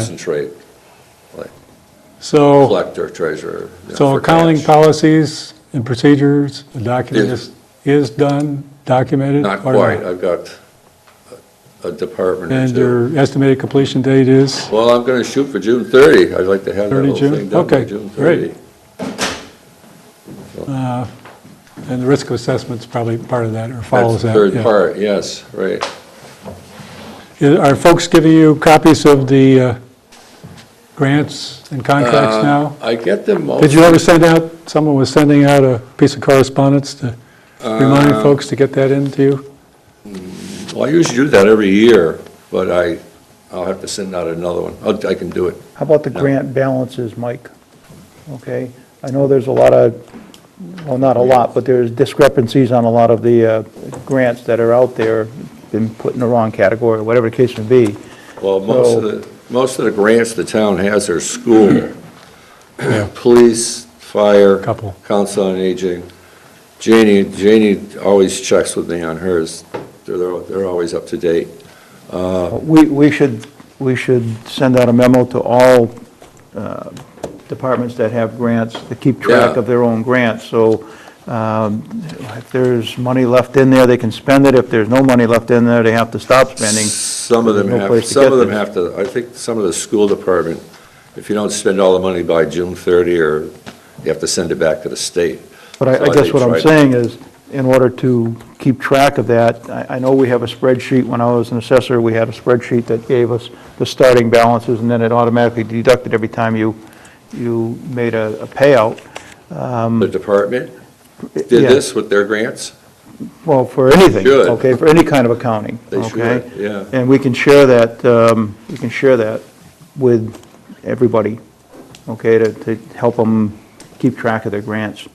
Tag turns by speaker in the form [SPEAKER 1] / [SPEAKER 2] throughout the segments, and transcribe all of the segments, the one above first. [SPEAKER 1] concentrate, like
[SPEAKER 2] So,
[SPEAKER 1] collector, treasurer. you know,
[SPEAKER 2] Oh. so
[SPEAKER 1] for
[SPEAKER 2] accounting
[SPEAKER 1] cash.
[SPEAKER 2] policies and procedures, the document
[SPEAKER 1] Is-
[SPEAKER 2] is, is done, documented?
[SPEAKER 1] Not
[SPEAKER 2] or
[SPEAKER 1] quite, I've got a- a department or
[SPEAKER 2] And
[SPEAKER 1] two.
[SPEAKER 2] your estimated completion date is,
[SPEAKER 1] Well, I'm gonna shoot for June 30, I'd like to have that
[SPEAKER 2] 30
[SPEAKER 1] whole
[SPEAKER 2] June?
[SPEAKER 1] thing done by
[SPEAKER 2] Okay,
[SPEAKER 1] June 30.
[SPEAKER 2] great. and the risk assessment's probably part of that, or
[SPEAKER 1] That's
[SPEAKER 2] follows
[SPEAKER 1] the
[SPEAKER 2] that.
[SPEAKER 1] third
[SPEAKER 2] yeah.
[SPEAKER 1] part, yes, right.
[SPEAKER 2] Is- Are folks giving you copies of the uh, grants and contracts
[SPEAKER 1] Uh, oh,
[SPEAKER 2] now?
[SPEAKER 1] I get them most.
[SPEAKER 2] Did you ever send out, someone was sending out a piece of correspondence to
[SPEAKER 1] Uh,
[SPEAKER 2] remind folks to get that into you?
[SPEAKER 1] Well, I usually do that every year, but I, I'll have to send out another one. I'll- I can do it.
[SPEAKER 3] How about the grant balances, Mike? Okay, I know there's a lot of, well, not a lot, but there's discrepancies on a lot of the uh, grants that are out there, been put in the wrong category, whatever the case may be.
[SPEAKER 1] Well, most of the, most of the grants the town has are school,
[SPEAKER 2] Yeah.
[SPEAKER 1] police, fire.
[SPEAKER 2] Couple.
[SPEAKER 1] Council on Aging. Janie, Janie always checks with me on hers. They're, they're they're always up to date.
[SPEAKER 3] We, we should, we should send out a memo to all uh, departments that have grants to keep track
[SPEAKER 1] Yeah.
[SPEAKER 3] of their own grants, so um, if there's money left in there, they can spend it, if there's no money left in there, they have to stop spending.
[SPEAKER 1] Some of them
[SPEAKER 3] There's no
[SPEAKER 1] have,
[SPEAKER 3] place to
[SPEAKER 1] some
[SPEAKER 3] get
[SPEAKER 1] of them
[SPEAKER 3] this.
[SPEAKER 1] have to, I think some of the school department, if you don't spend all the money by June 30, or you have to send it back to the state.
[SPEAKER 3] But I- I
[SPEAKER 1] So
[SPEAKER 3] guess what
[SPEAKER 1] try
[SPEAKER 3] I'm
[SPEAKER 1] to-
[SPEAKER 3] saying is, in order to keep track of that, I I know we have a spreadsheet, when I was an assessor, we had a spreadsheet that gave us the starting balances, and then it automatically deducted every time you, you made a a payout.
[SPEAKER 1] The department did
[SPEAKER 3] Um, Yeah.
[SPEAKER 1] this with their grants?
[SPEAKER 3] Well, for anything.
[SPEAKER 1] Should.
[SPEAKER 3] Okay, for any kind of accounting.
[SPEAKER 1] They
[SPEAKER 3] okay?
[SPEAKER 1] should, yeah.
[SPEAKER 3] And we can share that, um, we can share that with everybody, okay, to, to help them keep track of their grants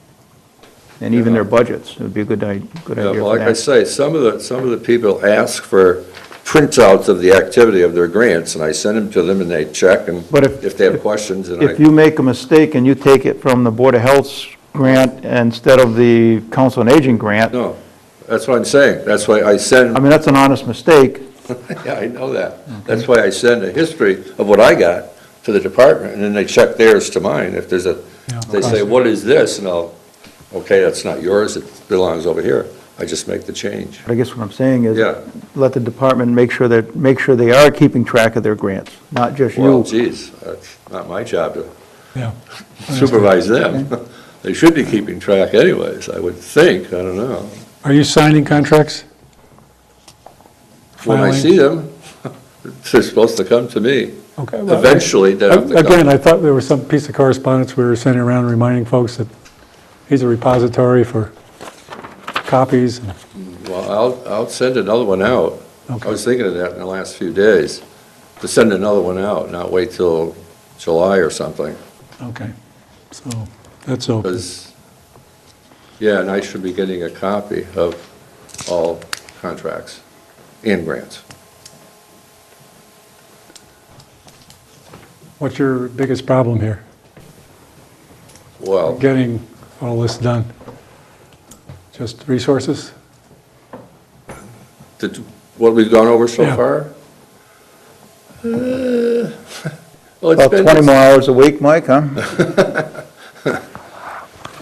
[SPEAKER 3] and even their budgets. It would be a good, i- good
[SPEAKER 1] Yeah,
[SPEAKER 3] idea
[SPEAKER 1] well,
[SPEAKER 3] for
[SPEAKER 1] like I
[SPEAKER 3] that.
[SPEAKER 1] say, some of the, some of the people ask for printouts of the activity of their grants, and I send them to them, and they check, and
[SPEAKER 3] But if-
[SPEAKER 1] if they have questions, and
[SPEAKER 3] If
[SPEAKER 1] I,
[SPEAKER 3] you make a mistake and you take it from the Board of Health's grant instead of the Council on Aging grant, I
[SPEAKER 1] no, that's what I'm saying, that's why I send,
[SPEAKER 3] mean, that's an honest mistake.
[SPEAKER 1] yeah, I know that. That's why I send a history of what I got to the department, and then they check theirs to mine, if there's a,
[SPEAKER 2] Yeah,
[SPEAKER 1] they say,
[SPEAKER 2] awesome.
[SPEAKER 1] what is this? And I'll, okay, that's not yours, it belongs over here, I just make the change.
[SPEAKER 3] But I guess what I'm saying is,
[SPEAKER 1] Yeah.
[SPEAKER 3] let the department make sure that, make sure they are keeping track of their grants, not just
[SPEAKER 1] Well,
[SPEAKER 3] you.
[SPEAKER 1] geez, that's not my job to
[SPEAKER 2] Yeah.
[SPEAKER 1] supervise them. They should be keeping track anyways, I would think, I don't know.
[SPEAKER 2] Are you signing contracts?
[SPEAKER 1] When I
[SPEAKER 2] Filing?
[SPEAKER 1] see them, they're supposed to come to me.
[SPEAKER 2] Okay. well,
[SPEAKER 1] Eventually, they have to
[SPEAKER 2] Again,
[SPEAKER 1] come.
[SPEAKER 2] I thought there was some piece of correspondence we were sending around reminding folks that he's a repository for copies. and-
[SPEAKER 1] Well, I'll, I'll send another one out. I
[SPEAKER 2] Okay.
[SPEAKER 1] was thinking of that in the last few days, to send another one out, not wait till July or something,
[SPEAKER 2] Okay, so that's open.
[SPEAKER 1] because, yeah, and I should be getting a copy of all contracts and grants.
[SPEAKER 2] What's your biggest problem here?
[SPEAKER 1] Well,
[SPEAKER 2] Getting all this done? Just resources?
[SPEAKER 1] Did, what we've gone over so
[SPEAKER 2] Yeah.
[SPEAKER 1] far? Uh, Well, it's
[SPEAKER 3] About
[SPEAKER 1] been-
[SPEAKER 3] 20 more hours a week, Mike, huh?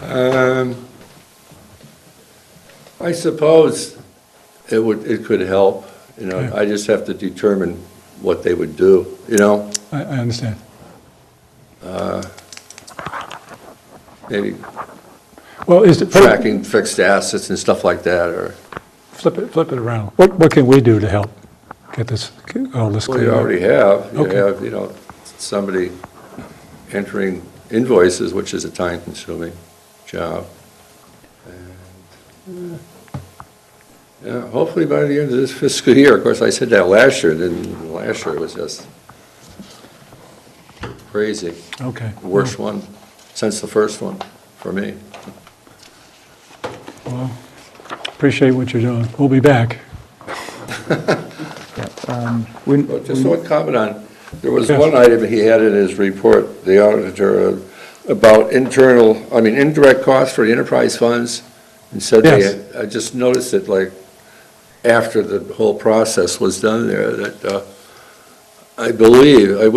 [SPEAKER 1] Um, I suppose it would, it could help, you know,
[SPEAKER 2] Okay.
[SPEAKER 1] I just have to determine what they would do, you know?
[SPEAKER 2] I, I understand.
[SPEAKER 1] Maybe
[SPEAKER 2] Well, is it, put it-
[SPEAKER 1] tracking fixed assets and stuff like that, or,
[SPEAKER 2] flip it, flip it around. What, what can we do to help get this, all this
[SPEAKER 1] well,
[SPEAKER 2] cleared
[SPEAKER 1] you
[SPEAKER 2] up?
[SPEAKER 1] already have, you
[SPEAKER 2] Okay.
[SPEAKER 1] have, you know, somebody entering invoices, which is a time-consuming job. And, eh, Yeah, hopefully by the end of this fiscal year, of course, I said that last year, then last year was just crazy.
[SPEAKER 2] Okay.
[SPEAKER 1] Worst one since the first one for me.
[SPEAKER 2] Appreciate what you're doing. We'll be back.
[SPEAKER 3] Um, We-
[SPEAKER 1] Well, Just one comment on, there was
[SPEAKER 2] Mm-hmm. Yes.
[SPEAKER 1] one item he had in his report, the auditor, about internal, I mean, indirect costs for the enterprise funds, and said
[SPEAKER 2] Yes.
[SPEAKER 1] they, I just noticed it like, after the whole process was done there, that, uh, I believe, I